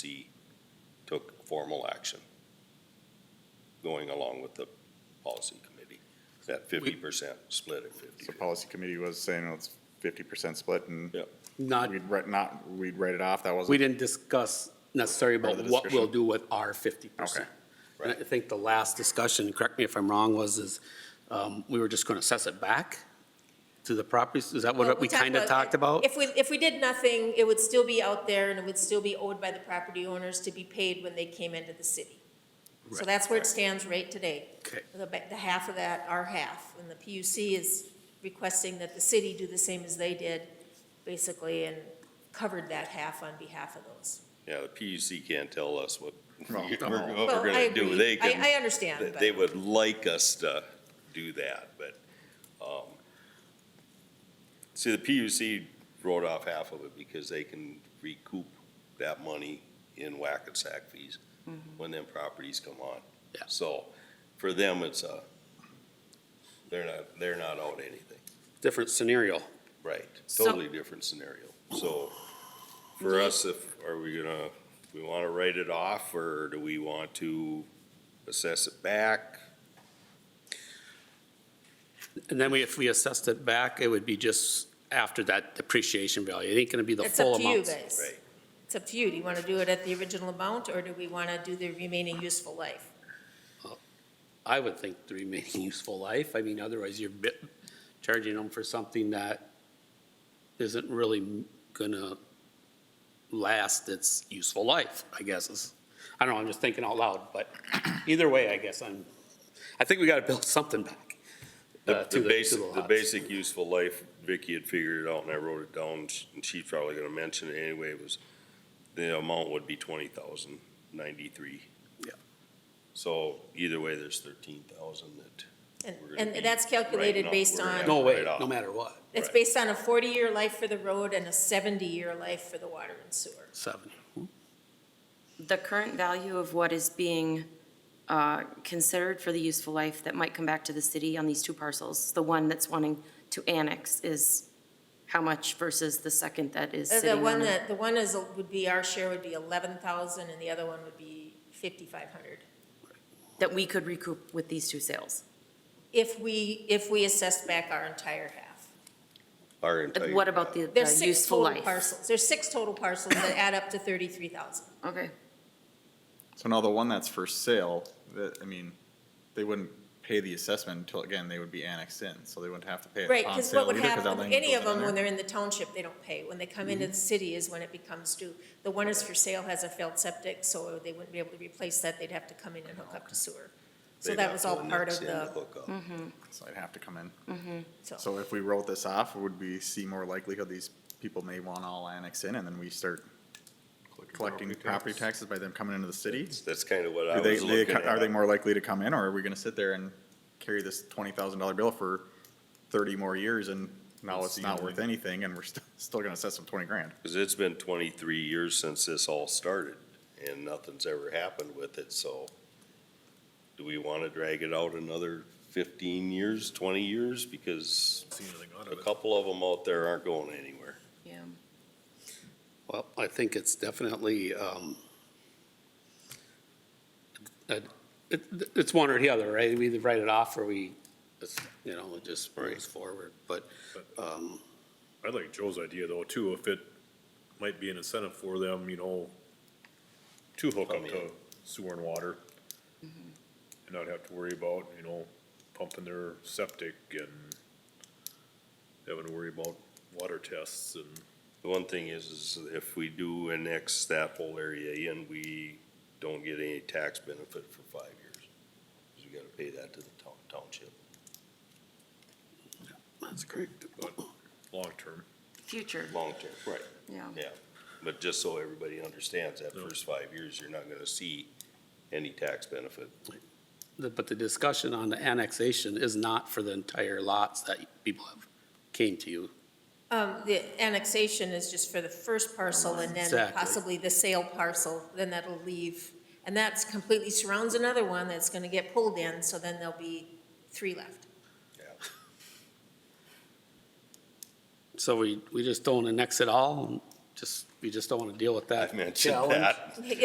C took formal action going along with the policy committee, that fifty percent split at fifty. The policy committee was saying well, it's fifty percent split and Yeah. Not, we'd write, not, we'd write it off. That we wasn't, didn't discuss necessarily Part of about the what we'll discussion. do with our fifty percent. And I think the last discussion, correct me if I'm wrong, was is, um, we were just gonna assess it back to the properties, is that Well, what we talked uh, kinda talked about? If we, if we did nothing, it would still be out there and it would still be owed by the property owners to be paid when they came into the city. So Right. that's where it stands right today. Okay. The, ba- the half of that, our half, and the PUC is requesting that the city do the same as they did, basically, and covered that half on behalf of those. Yeah, the PUC can't tell us what No. we're, what Well, we're I gonna do. agree. They I- can. I understand, they- but- They would like us to do that, but, um, see, the PUC wrote off half of it because they can recoup that money in whack and sack fees when them properties come on. Yeah. So, for them, it's a, they're not, they're not owed anything. Different scenario. Right, So- totally different scenario. So for us, if, are we gonna, we wanna write it off or do we want to assess it back? And then we, if we assessed it back, it would be just after that depreciation value. It ain't gonna be the It's full up to you amount. guys. Right. It's up to you. Do you want to do it at the original amount or do we want to do the remaining useful life? I would think the remaining useful life. I mean, otherwise you're bit- charging them for something that isn't really gonna last its useful life, I guess is. I don't know, I'm just thinking out loud, but either way, I guess I'm, I think we gotta build something back. The, uh, to the to basic, the lots. basic useful life, Vicky had figured it out and I wrote it down and she's probably gonna mention it anyway, was the amount would be twenty thousand ninety-three. Yeah. So either way, there's thirteen thousand that, And, We're gonna be and that's calculated writing off- based we're gonna on. have No way, Right off. no matter what, It's Right. based on a 40-year life for the road and a 70-year life for the water and sewer. Uh, seven. Hmm? the current value of what is being uh, considered for the useful life that might come back to the city on these two parcels, the one that's wanting to annex is how much versus the second that is Uh, The sitting one on it? that, the one is, uh, would be, our share would be 11,000 and the other one would be 5,500. That we could recoup with these two sales? If we, if we assessed back our entire half. our Uh, entire. What about the There's the six useful total life? parcels. There's six total parcels that add up to 33,000. Okay, so now the one that's for sale, that, I mean, they wouldn't pay the assessment until, again, they would be annexed in, so they wouldn't have to pay it Right, on because sale what would either, 'cause that happen, language any of wasn't them, when in there. they're in the township, they don't pay. When they come into the city is when it becomes due. The one is for sale has a failed septic, so they wouldn't be able to replace that. They'd have to come in and hook up to sewer. So they'd that have was to all part annex of in to the, Mm-hmm. hook up. So I'd have to come in. so, So if we wrote this off, would we see more likelihood these people may want all annexed in and then we start collecting property taxes by them coming into the city? That's kind of what I Are they, was they, looking co- at. are they more likely to come in, or are we gonna sit there and carry this twenty thousand dollar bill for thirty more years and now it's not worth anything and we're still, still gonna assess them twenty grand? Because it's been twenty-three years since this all started, and nothing's ever happened with it, so do we want to drag it out another fifteen years, twenty years? Because a couple of them out there aren't going anywhere. yeah. Well, I think it's definitely, um, it, it- it's one or the other, right? We either write it off or we, it's, you know, it just moves forward, but, um, I like Joe's idea though, too, if it might be an incentive for them, you know, to hook up to sewer and water. And not have to worry about, you know, pumping their septic and having to worry about water tests and The one thing is, is if we do annex that whole area in, we don't get any tax benefit for five years. 'Cause we got to pay that to the town- township. that's correct. long-term. Future, Long term. Right. yeah. Yeah, but just so everybody understands, that first five years, you're not gonna see any tax benefit. The- But the discussion on the annexation is not for the entire lots that people have came to you. um, the annexation is just for the first parcel and then Exactly. possibly the sale parcel, then that'll leave. And that's completely surrounds another one that's gonna get pulled in, so then there'll be three left. So we, we just don't annex it all, and just we just don't want to deal with that. I mentioned challenge. that.